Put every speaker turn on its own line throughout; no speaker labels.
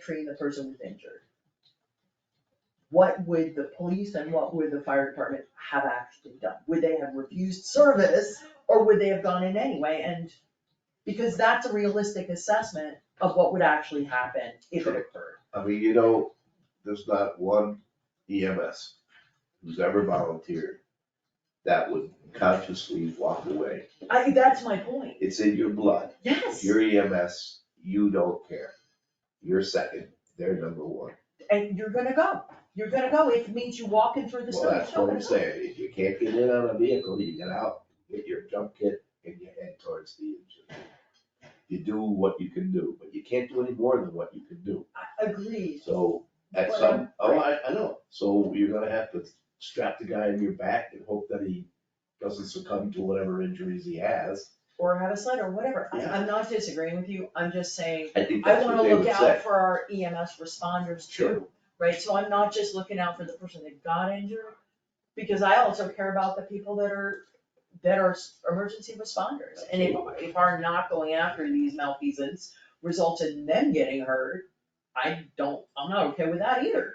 treating the person who's injured. What would the police and what would the fire department have actually done? Would they have refused service or would they have gone in anyway and? Because that's a realistic assessment of what would actually happen if it occurred.
I mean, you know, there's not one EMS who's ever volunteered that would consciously walk away.
I, that's my point,
It's in your blood.
yes,
You're EMS, you don't care. You're second, they're number one.
and you're gonna go, you're gonna go, if it means you walking through the
Well,
snow,
that's
you're
what I'm
gonna go.
saying. If you can't get in on a vehicle, you get out, get your jump kit and you head towards the engine. You do what you can do, but you can't do any more than what you can do.
I- Agreed,
So at
Well,
some, oh,
right.
I, I know, so you're gonna have to strap the guy in your back and hope that he doesn't succumb to whatever injuries he has.
or have a sled or whatever, I,
Yeah.
I'm not disagreeing with you, I'm just saying,
I think
I
that's what
wanna
they
look
would say.
out for our EMS responders
Sure.
too, right? So I'm not just looking out for the person that got injured, because I also care about the people that are, that are s- emergency responders. And if, if our not going after these malfeasance results in them getting hurt, I don't, I'm not okay with that either.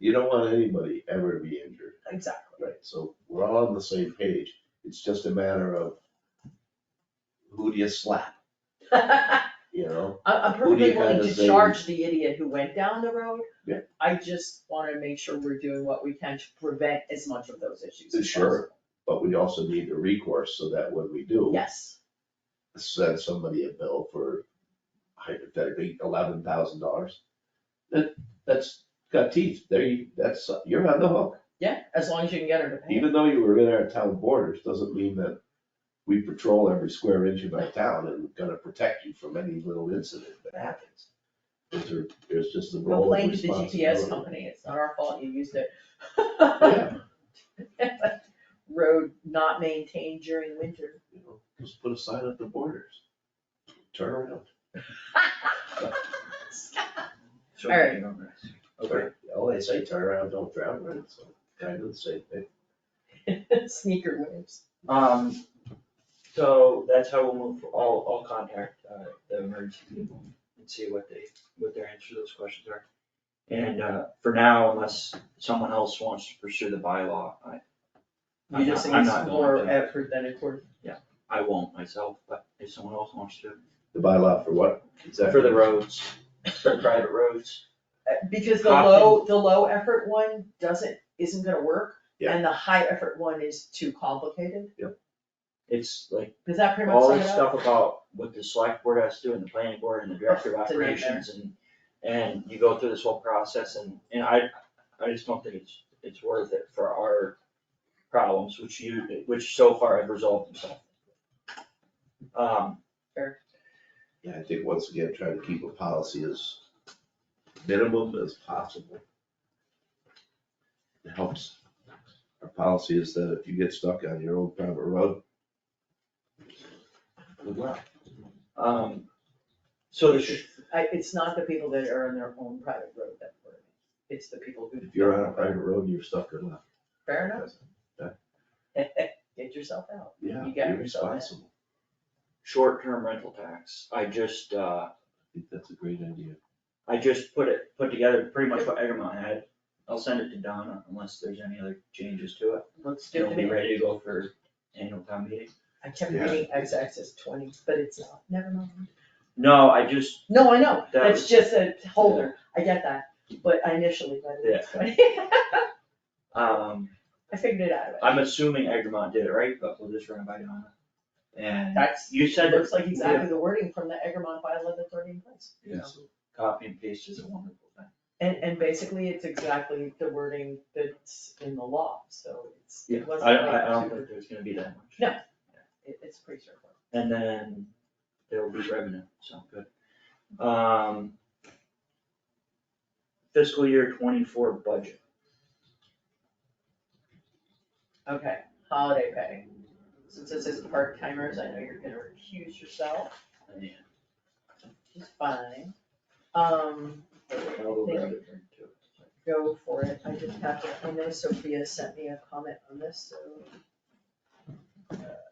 You don't want anybody ever to be injured,
Exactly.
right? So we're all on the same page. It's just a matter of who do you slap,
I,
you know?
I'm
Who do you
perfectly willing
kinda
to
say-
charge the idiot who went down the road.
Yeah.
I just wanna make sure we're doing what we can to prevent as much of those issues as
Sure.
possible.
But we also need the recourse so that when we do
Yes.
send somebody a bill for hypothetically eleven thousand dollars, that, that's got teeth, there you, that's, you're on the hook.
Yeah, as long as you can get her to pay.
Even though you were in our town borders, doesn't mean that we patrol every square inch of our town and we're gonna protect you from any little incident that happens. There's, a- there's just the
Go
role of
blame the GPS
responsibility.
company, it's not our fault, you used it.
Yeah,
Road not maintained during winter.
you know, just put a sign at the borders, turn around.
So
All right.
moving on this. Okay,
All they say, turn around, don't drown, right, so kind of the same thing.
Sneaker waves.
um, so that's how we'll move, I'll, I'll contact, uh, the emergency people and see what they, what their answer to those questions are. And, uh, for now, unless someone else wants to pursue the bylaw, I,
You
I'm
just think
not, I'm
it's
not going
more
to,
effort than it worth.
I won't myself, but if someone else wants to.
The bylaw for what?
For the roads, for private roads,
Uh, Because the low, the low effort one doesn't, isn't gonna work.
Yeah.
And the high effort one is too complicated.
it's like
Does that pretty much
all
sum
this
it up?
stuff about what the select board has to do and the planning board and the director of
It's a nightmare.
operations and, and you go through this whole process and, and I, I just don't think it's, it's worth it for our problems, which you, which so far have resolved themselves. Um,
Yeah, I think once again, trying to keep a policy as minimum as possible. It helps. Our policy is that if you get stuck on your own private road. Good luck.
um, so the, sh-
I, it's not the people that are on their own private road that worry. It's the people who.
If you're on a private road, you're stuck or left.
Fair enough, get yourself out.
Yeah,
You got
you're
yourself in.
responsible.
short-term rental tax, I just, uh,
I think that's a great idea.
I just put it, put together pretty much what Egremont had. I'll send it to Donna unless there's any other changes to it.
Looks good
It'll
to
be
me.
ready to go for annual town meeting.
I kept
Yeah.
reading X axis twenty, but it's not, never mind.
No, I just,
No, I know,
That
that's
was-
just a holder, I get that, but I initially read it as twenty.
um,
I figured it out.
I'm assuming Egremont did it right, but we'll just run it by Donna. And
That's,
you
it
said
looks
that
like exactly the wording from the Egremont bylaw that they're in place. you know.
Yes.
copy and paste is a wonderful thing.
And, and basically, it's exactly the wording that's in the law, so it's, it wasn't
I, I, I
like
don't
super-
think there's gonna be that much.
No. it- it's pretty straightforward.
And then there will be revenue, so good. Um. Fiscal year twenty-four budget.
Okay, holiday pay, since this is part timers, I know you're gonna recuse yourself, which is fine. Um,
I'll grab a drink too.
go for it, I just have to, I know Sophia sent me a comment on this, so. uh,